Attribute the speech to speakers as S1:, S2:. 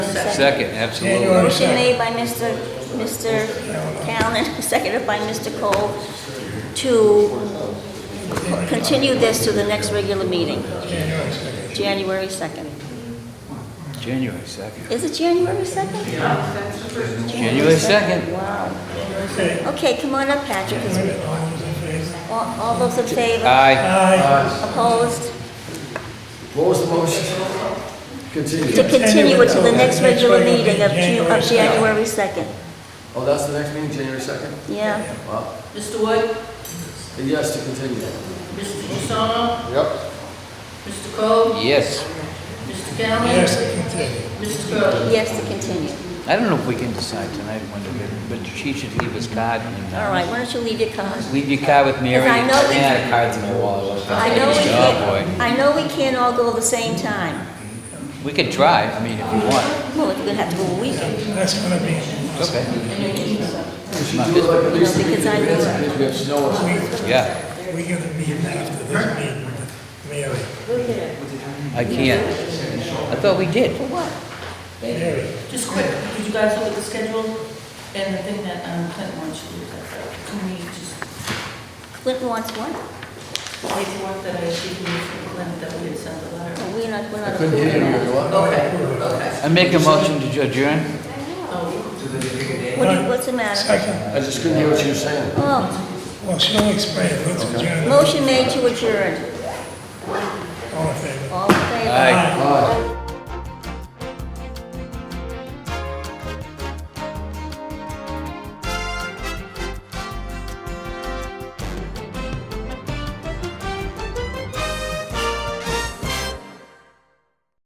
S1: Second, absolutely.
S2: Motion made by Mr. Mr. Callen, seconded by Mr. Cole, to continue this to the next regular meeting. January 2nd.
S1: January second.
S2: Is it January 2nd?
S1: January second.
S2: Wow. Okay, come on up, Patrick. 'cause we- All all those in favor?
S1: Aye.
S2: Opposed?
S3: What was the motion? Continue.
S2: To continue it to the next regular meeting of Ju- of January 2nd.
S3: Oh, that's the next meeting, January 2nd?
S2: Yeah.
S3: Wow.
S4: Mr. Wood,
S3: And Yes, to continue.
S4: Mr. Usama,
S3: Yep.
S4: Mr. Cole,
S1: Yes.
S4: Mr. Callen.
S5: Yes, to continue.
S4: Mr. Gurley.
S2: Yes, to continue.
S1: I don't know if we can decide tonight when to, get- but she should leave us card. and, uh,
S2: All right, why don't you leave your card?
S1: Leave your card with Mary.
S2: Because I know we-
S1: Yeah, cards in my wallet.
S2: I know we
S1: Oh,
S2: can't, I know we can't all go at the same time.
S1: boy. We could try, I mean, if you want.
S2: Well, we're gonna have to go a weekend,
S5: That's gonna be,
S1: Okay.
S3: We should do it like at least a
S2: No,
S3: week in
S2: because I
S3: advance,
S2: know-
S3: because we have to know what's-
S1: Yeah,
S5: we got to meet after this meeting with Mary.
S1: I can't. I thought we did.
S2: what?
S5: Mary,
S4: Just quick, did you guys look at the schedule and the thing that um, Clint wants you to look at? Can we just,
S2: Clinton wants one?
S4: paperwork that I received from Clint that we had sent the letter?
S2: Well, we're not, we're
S3: I
S2: not
S3: couldn't hear
S2: approving
S3: you,
S2: that.
S3: everyone.
S4: Okay, okay.
S1: I make a motion to adjourn?
S4: Oh,
S2: What do you- What's the matter?
S5: second,
S3: I just couldn't hear what you were saying.
S2: Oh,
S5: well, she'll explain, let's adjourn,
S2: motion made to adjourn.
S5: all in favor?
S2: All in favor?
S1: Aye.
S3: Aye.